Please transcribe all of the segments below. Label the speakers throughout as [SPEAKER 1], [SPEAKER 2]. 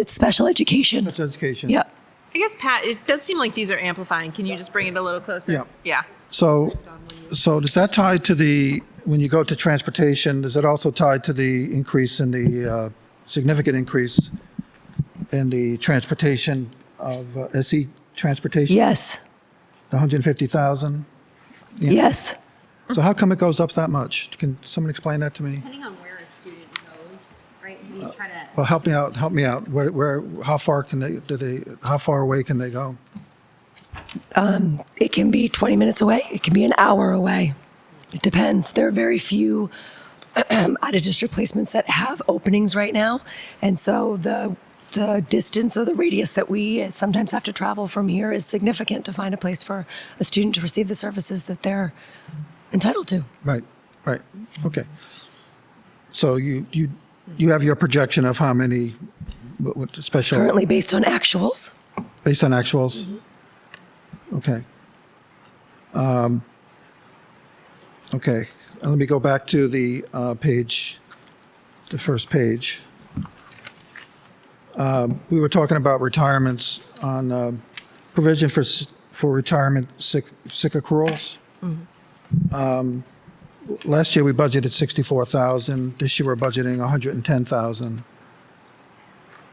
[SPEAKER 1] it's special education.
[SPEAKER 2] That's education.
[SPEAKER 1] Yeah.
[SPEAKER 3] I guess Pat, it does seem like these are amplifying. Can you just bring it a little closer?
[SPEAKER 2] Yeah.
[SPEAKER 3] Yeah.
[SPEAKER 2] So, so does that tie to the, when you go to transportation, is it also tied to the increase in the, uh, significant increase in the transportation of, uh, SE transportation?
[SPEAKER 1] Yes.
[SPEAKER 2] The 150,000?
[SPEAKER 1] Yes.
[SPEAKER 2] So how come it goes up that much? Can someone explain that to me?
[SPEAKER 4] Depending on where a student goes, right,
[SPEAKER 2] Uh,
[SPEAKER 4] we try to,
[SPEAKER 2] Well, help me out, help me out. Where, where, how far can they, do they, how far away can they go?
[SPEAKER 1] It can be 20 minutes away. It can be an hour away. It depends. There are very few out of district placements that have openings right now. And so the the distance or the radius that we sometimes have to travel from here is significant to find a place for a student to receive the services that they're entitled to.
[SPEAKER 2] Right, right, okay. So you, you, you have your projection of how many, what, what special?
[SPEAKER 1] Currently based on actuals.
[SPEAKER 2] Based on actuals? Okay. Um, Okay, and let me go back to the uh, page, the first page. Um, We were talking about retirements on um, provision for, s- for retirement sick, sick accruals. Um, Last year, we budgeted 64,000. This year, we're budgeting 110,000.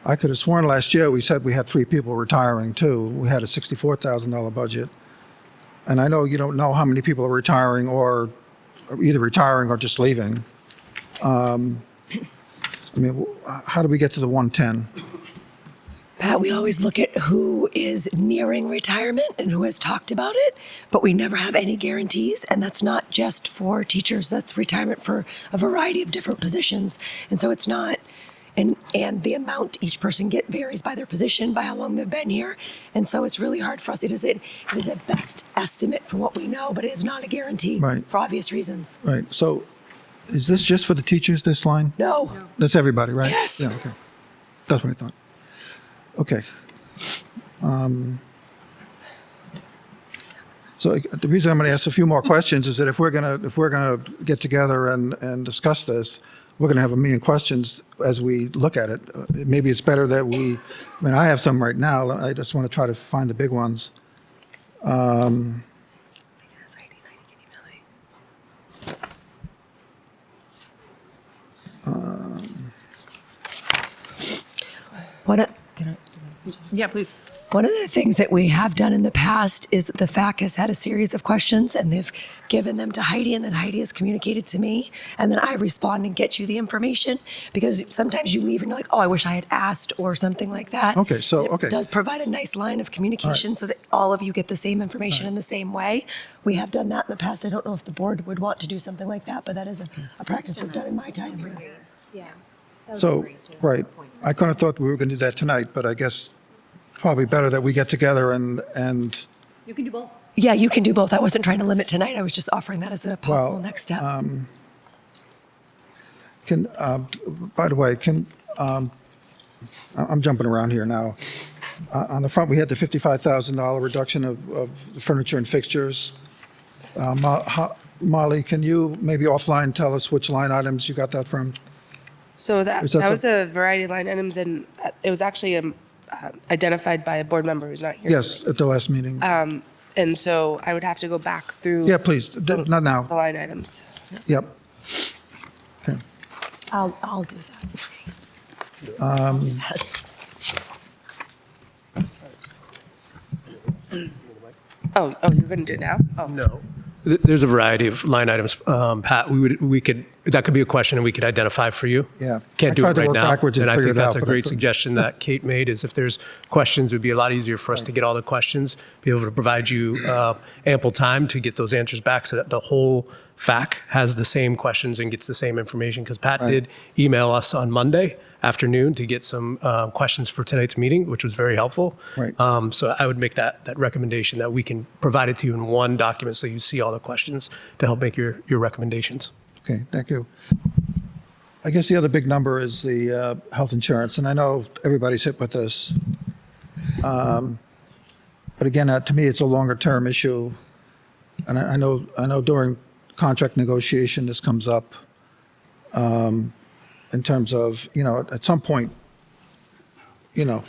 [SPEAKER 2] I could have sworn last year we said we had three people retiring too. We had a sixty-four thousand dollar budget, and I know you don't know how many people are retiring or, or either retiring or just leaving. Um, I mean, wh- how do we get to the one ten?
[SPEAKER 1] Pat, Uh, we always look at who is nearing retirement and who has talked about it, but we never have any guarantees. And that's not just for teachers, that's retirement for a variety of different positions. And so it's not, and, and the amount each person get varies by their position, by how long they've been here. And so it's really hard for us. It is, a, it is a best estimate for what we know, but it is not a guarantee
[SPEAKER 2] Right.
[SPEAKER 1] for obvious reasons.
[SPEAKER 2] Right. So, is this just for the teachers? This line?
[SPEAKER 1] No.
[SPEAKER 2] That's everybody, right?
[SPEAKER 1] Yes.
[SPEAKER 2] Yeah. Okay. That's what I thought. Okay. Um, so I- the reason I'm going to ask a few more questions is that if we're going to if we're going to get together and and discuss this, we're going to have a million questions as we look at it. Uh, Maybe it's better that we. I mean, I have some right now. I just want to try to find the big ones.
[SPEAKER 1] What a,
[SPEAKER 3] Yeah, please.
[SPEAKER 1] One of the things that we have done in the past is the FAC has had a series of questions and they've given them to Heidi and then Heidi has communicated to me and then I respond and get you the information because sometimes you leave and you're like, oh, I wish I had asked or something like that.
[SPEAKER 2] Okay, so-
[SPEAKER 1] It
[SPEAKER 2] okay.
[SPEAKER 1] does provide a nice line of communication so that all of you get the same information in the same way. We have done that in the past. I don't know if the board would want to do something like that, but that is a, a practice we've done in my time. here.
[SPEAKER 4] yeah. That would be
[SPEAKER 2] So,
[SPEAKER 4] great to have
[SPEAKER 2] right,
[SPEAKER 4] a point.
[SPEAKER 2] I kind of thought we were going to do that tonight, but I guess probably better that we get together and, and,
[SPEAKER 4] You can do both.
[SPEAKER 1] Yeah, you can do both. I wasn't trying to limit tonight. I was just offering that as a possible
[SPEAKER 2] Well, um,
[SPEAKER 1] next step.
[SPEAKER 2] can, um, by the way, can, um, I- I'm jumping around here now. Uh, On the front, we had the $55,000 reduction of, of furniture and fixtures. Uh, Mo- how- Molly, can you maybe offline tell us which line items you got that from?
[SPEAKER 5] So that,
[SPEAKER 2] Is that
[SPEAKER 5] that was
[SPEAKER 2] some-
[SPEAKER 5] a variety of line items, and uh, it was actually um, uh, identified by a board member who's not here.
[SPEAKER 2] Yes, at the last meeting.
[SPEAKER 5] And so I would have to go back through
[SPEAKER 2] Yeah, please, d- not
[SPEAKER 5] the
[SPEAKER 2] now.
[SPEAKER 5] line items.
[SPEAKER 2] Yep. Okay.
[SPEAKER 1] I'll, I'll do that.
[SPEAKER 5] Oh, oh, you're going to do it now? Oh.
[SPEAKER 6] No. Th- There's a variety of line items, um, Pat. We would, we could, that could be a question and we could identify for you.
[SPEAKER 2] Yeah. I
[SPEAKER 6] Can't do
[SPEAKER 2] tried
[SPEAKER 6] it
[SPEAKER 2] to
[SPEAKER 6] right
[SPEAKER 2] work
[SPEAKER 6] now.
[SPEAKER 2] backwards and
[SPEAKER 6] I
[SPEAKER 2] figure it
[SPEAKER 6] think that's
[SPEAKER 2] out,
[SPEAKER 6] a
[SPEAKER 2] but I
[SPEAKER 6] great
[SPEAKER 2] couldn't.
[SPEAKER 6] suggestion that Kate made is if there's questions, it'd be a lot easier for us to get all the questions, be able to provide you uh, ample time to get those answers back so that the whole FAC has the same questions and gets the same information. Because Pat did email us on Monday afternoon to get some uh, questions for tonight's meeting, which was very helpful.
[SPEAKER 2] Right.
[SPEAKER 6] Um, so I would make that, that recommendation that we can provide it to you in one document so you see all the questions to help make your, your recommendations.
[SPEAKER 2] Okay, thank you. I guess the other big number is the uh, health insurance, and I know everybody's hit with this. Um, But again, uh, to me, it's a longer-term issue, and I I know, I know during contract negotiation, this comes up um, in terms of, you know, at some point, you know,